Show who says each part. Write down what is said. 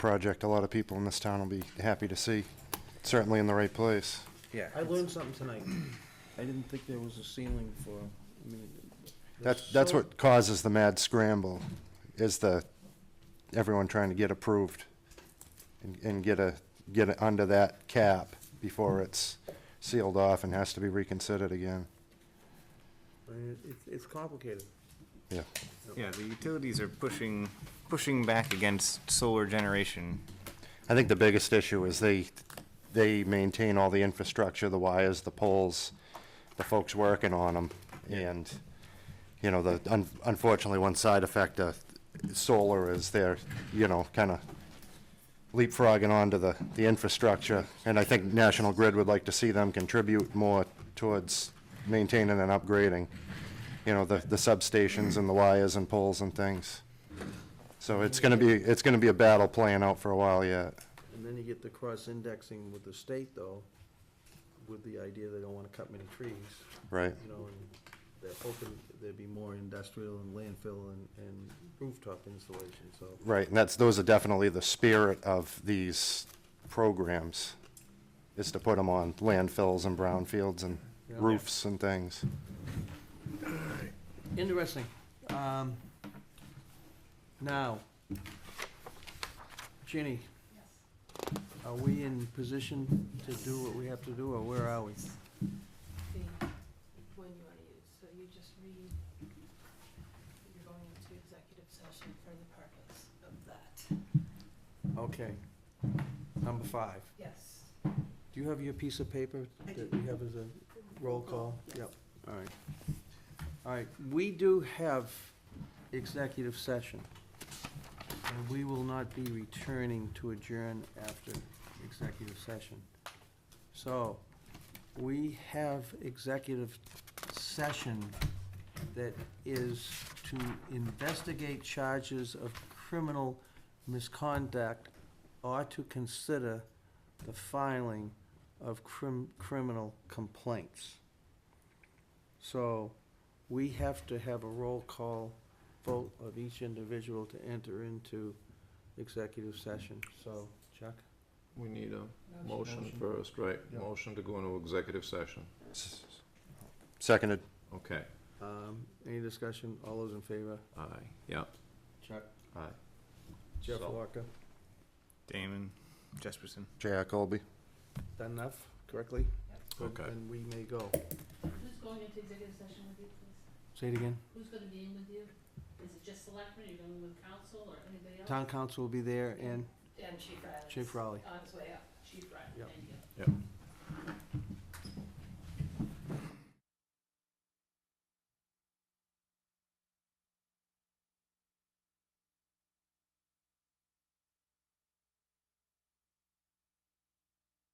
Speaker 1: project a lot of people in this town will be happy to see. Certainly in the right place.
Speaker 2: Yeah.
Speaker 3: I learned something tonight. I didn't think there was a ceiling for, I mean.
Speaker 1: That's,
Speaker 3: there's
Speaker 1: that's
Speaker 3: so-
Speaker 1: what causes the mad scramble, is the, everyone trying to get approved and, and get a, get it under that cap before it's sealed off and has to be reconsidered again.
Speaker 3: I mean, it- It's complicated.
Speaker 1: Yeah.
Speaker 2: Yeah, the utilities are pushing, pushing back against solar generation.
Speaker 1: I think the biggest issue is they, they maintain all the infrastructure, the wires, the poles, the folks working on them. And, you know, the, un- unfortunately, one side effect of solar is they're, you know, kind of leapfrogging onto the, the infrastructure. And I think National Grid would like to see them contribute more towards maintaining and upgrading, you know, the, the substations and the wires and poles and things. So it's gonna be, it's gonna be a battle playing out for a while yet.
Speaker 3: And then you get the cross-indexing with the state, though, with the idea they don't want to cut many trees,
Speaker 1: Right.
Speaker 3: you know, and they're hoping there'd be more industrial and landfill and, and rooftop installation, so.
Speaker 1: Right, and that's, those are definitely the spirit of these programs, is to put them on landfills and brownfields and
Speaker 3: Yeah.
Speaker 1: roofs and things.
Speaker 3: Interesting. Um, Now, Ginny, are we in position to do what we have to do, or where are we?
Speaker 4: the one you want to use, so you just read, that you're going into executive session for the purpose of that.
Speaker 3: Okay. Number five.
Speaker 4: Yes.
Speaker 3: Do you have your piece of paper
Speaker 4: I
Speaker 3: that
Speaker 4: do.
Speaker 3: we have as a roll call?
Speaker 4: yes.
Speaker 3: Yep, all right. All right, we do have executive session. And we will not be returning to adjourn after executive session. So, we have executive session that is to investigate charges of criminal misconduct or to consider the filing of crim- criminal complaints. So we have to have a roll call vote of each individual to enter into executive session. So, Chuck?
Speaker 5: We need a motion
Speaker 3: Motion.
Speaker 5: first, right?
Speaker 3: Yeah.
Speaker 5: Motion to go into executive session.
Speaker 1: S- Seconded,
Speaker 5: Okay,
Speaker 3: Um, Any discussion? All those in favor?
Speaker 5: aye, yeah,
Speaker 3: Chuck?
Speaker 5: aye.
Speaker 3: Jeff
Speaker 5: So-
Speaker 3: Walker?
Speaker 2: Damon, Jesperson.
Speaker 1: J.R. Colby.
Speaker 3: Done enough correctly?
Speaker 5: Okay.
Speaker 3: And we may go.
Speaker 4: Who's going into executive session with you, please?
Speaker 3: Say it again.
Speaker 4: Who's going to be in with you? Is it just selectmen, are you going with council or anybody else?
Speaker 3: Town council will be there and
Speaker 4: And Chief Riley.
Speaker 3: Chief Riley.
Speaker 4: On his way up, Chief Riley,
Speaker 3: Yep.
Speaker 4: thank you.
Speaker 5: Yep.